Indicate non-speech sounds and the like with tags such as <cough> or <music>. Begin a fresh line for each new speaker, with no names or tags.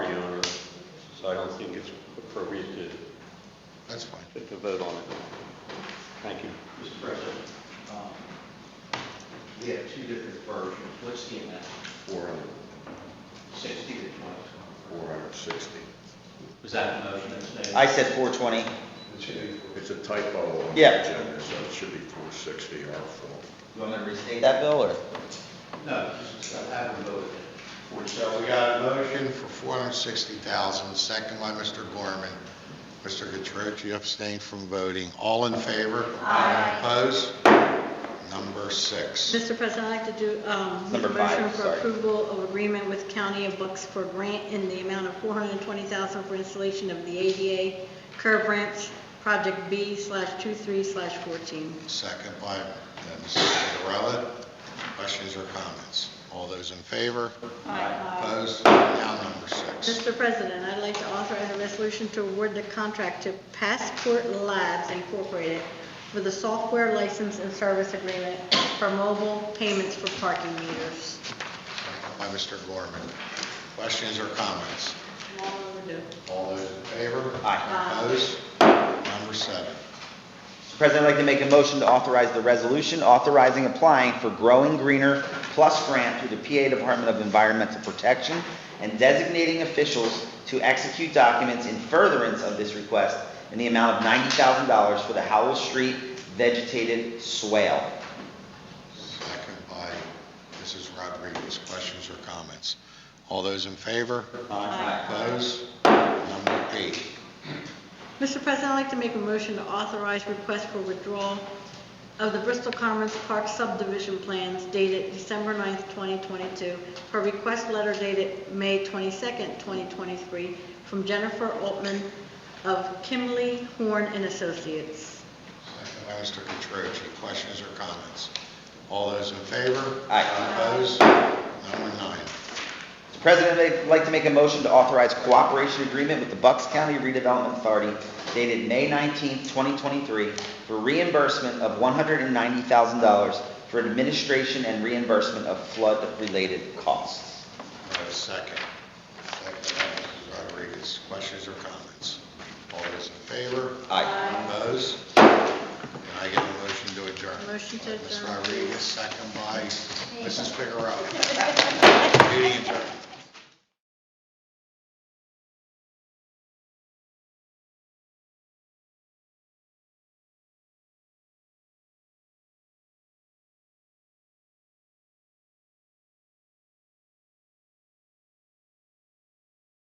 That's fine.
Get the vote on it. Thank you.
Mr. President, um, we have two different versions. What's the amount?
Four hundred,
Sixty to twenty?
four hundred sixty.
Was that the motion that's made?
I said 420.
It's a typo on the
Yeah.
agenda, so it should be four sixty, our fault.
You want me to restate that, Bill, or?
No, just have a vote.
So we got a motion for four hundred sixty thousand, second by Mr. Gorman. Mr. Gattrich, abstained from voting. All in favor? Aye. Opposed? Number six.
Mr. President, I'd like to do, um, make
Number
a
five,
motion for
sorry.
approval of agreement with County of Bucks for grant in the amount of four hundred and twenty thousand for installation of the ADA curb ramps, project B slash two-three slash fourteen.
Second by uh, Mrs. Cinderella. Questions or comments? All those in favor? Opposed? Now number six.
Mr. President, I'd like to authorize a resolution to award the contract to Passport Labs Incorporated for the software license and service agreement for mobile payments for parking meters.
Second By Mr. Gorman. Questions or comments?
Long overdue.
All those in favor?
Aye.
Opposed? Number seven.
Mr. President, I'd like to make a motion to authorize the resolution authorizing applying for Growing Greener Plus Grant through the PA Department of Environmental Protection and designating officials to execute documents in furtherance of this request in the amount of $90,000 for the Howell Street vegetated swale.
Second by Mrs. Rodriguez. Questions or comments? All those in favor?
Aye.
Opposed? Number eight.
Mr. President, I'd like to make a motion to authorize request for withdrawal of the Bristol Commons Park subdivision plans dated December 9th, 2022, per request letter dated May 22nd, 2023, from Jennifer Altman of Kimley Horn and Associates.
Second by Mr. Catroci. Questions or comments? All those in favor?
Aye.
Opposed? Number nine.
Mr. President, I'd like to make a motion to authorize cooperation agreement with the Bucks County Redevelopment Authority dated May 19, 2023, for reimbursement of $190,000 for administration and reimbursement of flood-related costs.
Do I have a second? Second by Mrs. Rodriguez. Questions or comments? All those in favor?
Aye.
Opposed? Can I get a motion to adjourn?
Motion to
Ms.
adjourn. <laughs>
Rodriguez, second by Mrs. Figueroa. Meeting adjourned.